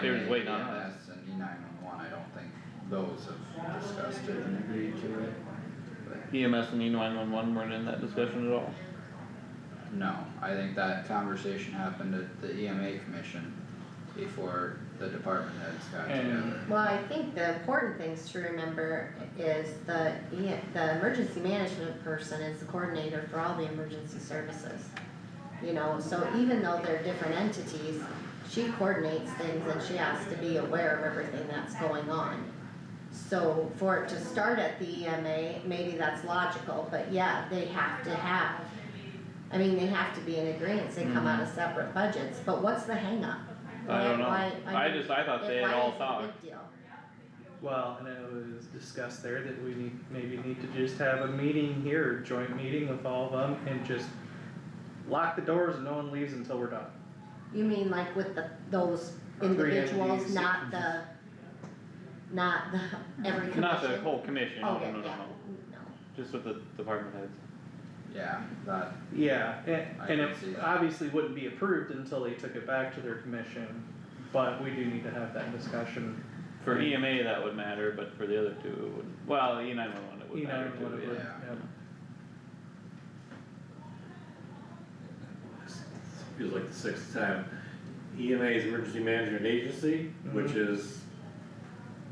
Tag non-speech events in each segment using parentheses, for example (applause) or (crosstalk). they was waiting on us. EMS and E nine one one, I don't think those have discussed it and agreed to it. But, EMS and E nine one one weren't in that discussion at all. no, I think that conversation happened at the EMA commission before the department heads got And- together. Well, I think the important things to remember is the, E- the emergency management person is the coordinator for all the emergency services. You know, so even though they're different entities, she coordinates things and she has to be aware of everything that's going on. So for it to start at the EMA, maybe that's logical, but yeah, they have to have, I mean, they have to be in agreement, they come out of separate budgets, but what's the hangup? Mm-hmm. I don't know, Why- why- I just, I thought they had why all is it a talked. big deal? Well, and it was discussed there that we need, maybe need to just have a meeting here, joint meeting with all of them and just lock the doors and no one leaves until we're done. You mean like with the, those individuals, entities. not the, not the, every commission? Not the whole commission, no, Okay, no, no, Oh, yeah, no. no. just with the department heads. Yeah, that, Yeah, and, I and can it see that. obviously wouldn't be approved until they took it back to their commission, but we do need to have that discussion. For EMA, that would matter, but for the other two, it wouldn't, well, E nine one one, it would You know, matter what it too, would- yeah. yeah. feels like the sixth time. EMA is Emergency Management Agency, which Mhm. is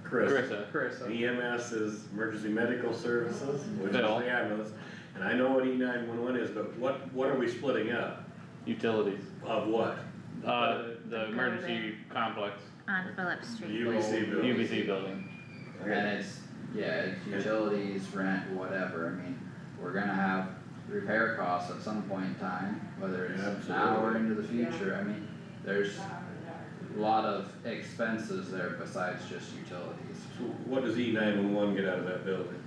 Chris. Carissa, Chris, uh, EMS is Emergency Medical Services, which is Bill. the ambulance. And I know what E nine one one is, but what, what are we splitting up? utilities, Of what? uh, The- the emergency complex, On Phillips The Street. UBC building. UBC building. And it's, yeah, it's utilities, rent, whatever, I mean, we're gonna have repair costs at some point in time, whether it's Absolutely. now or into the future, I mean, there's a lot of expenses there besides just utilities. So what does E nine one one get out of that building?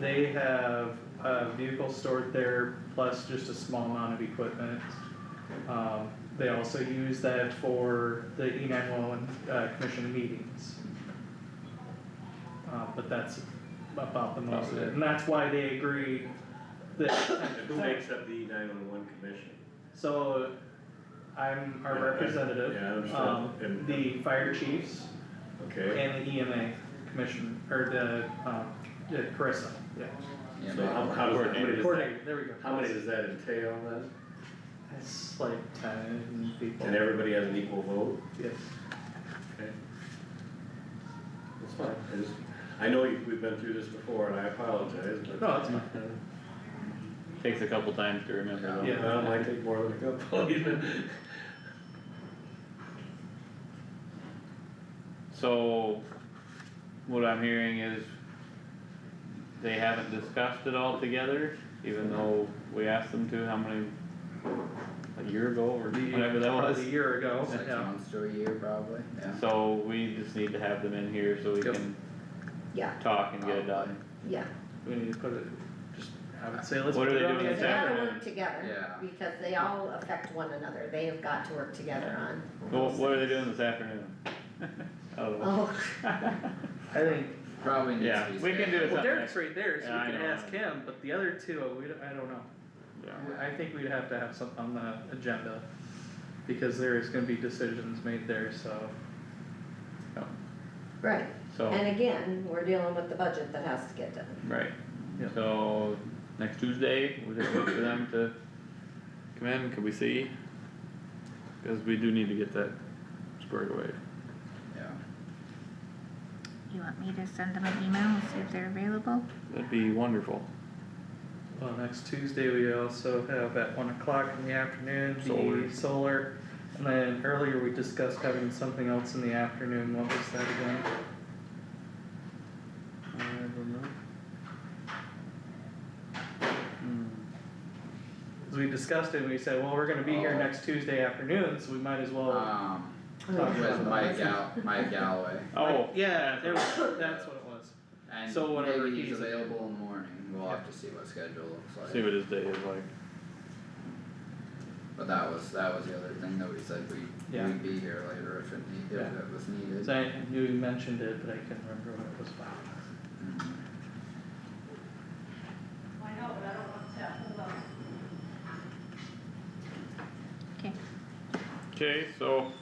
They have a vehicle stored there plus just a small amount of equipment. Um, they also use that for the E nine one one, uh, commission meetings. Uh, but that's about the most of it, and that's why they agreed that. And who (coughs) makes up the E nine one one commission? So, I'm our Yeah, I- representative, Yeah, I um, understand. And- the fire chiefs Okay, and the EMA commission, or the, um, the Carissa, yeah. you so how, know. how does, how many does that, Coordinator, there we go. how many does that entail then? It's like ten people. And everybody has an equal vote? Yes. Okay. That's fine, I just, I know you- we've been through this before and I apologize, but. No, it's fine. Takes a couple times to remember though. Yeah. Well, it might take more than a couple even. So, what I'm hearing is they haven't discussed it all together, even though we asked them to, how many, a year ago or whatever that Probably was. A year ago, Six yeah. months to a year probably, yeah. So we just need to have them in here so we Yep. can Yeah, talk and get it done. yeah, We need to put it, just, I would say let's What are put it they on doing the because they agenda. exactly? gotta work together, Yeah, because they all affect one another, they have got to work together on. Well, what are they doing this afternoon? (laughs) Oh, Oh, (laughs) I think, probably needs Yeah, to be. we can do scheduled. It's well, not Derek's next- right there, so Yeah, I we can know. ask him, but the other two, uh, we, don't- I don't know. (laughs) yeah. I think we'd have to have something on the agenda, because there is gonna be decisions made there, so. right, So, and again, we're dealing with the budget that has to get done, right, Yeah. so next Tuesday, we'll just wait for them to come in, could we see? Cause we do need to get that squared away. Yeah, You want me to send them an email and see if they're available? That'd be wonderful. Well, next Tuesday, we also have at one o'clock in the afternoon, Solar. the solar, and then earlier we discussed having something else in the afternoon, what was that again? I don't know. Hmm. 'Cause we discussed it, and we said, well, we're gonna be here Oh. next Tuesday afternoon, so we might as well. um, Talk with Mike Gal, Mike Galloway, Oh, Yeah, there was, that's what it was. So and whatever maybe he's he's- available in the morning, we'll have to see what schedule looks like. see what his day is like. But that was, that was the other thing that we said, we, Yeah. we'd be here later if it need, if Yeah. it was needed. 'Cause I knew you mentioned it, but I couldn't remember what it was about. Mhm. Okay. Okay, so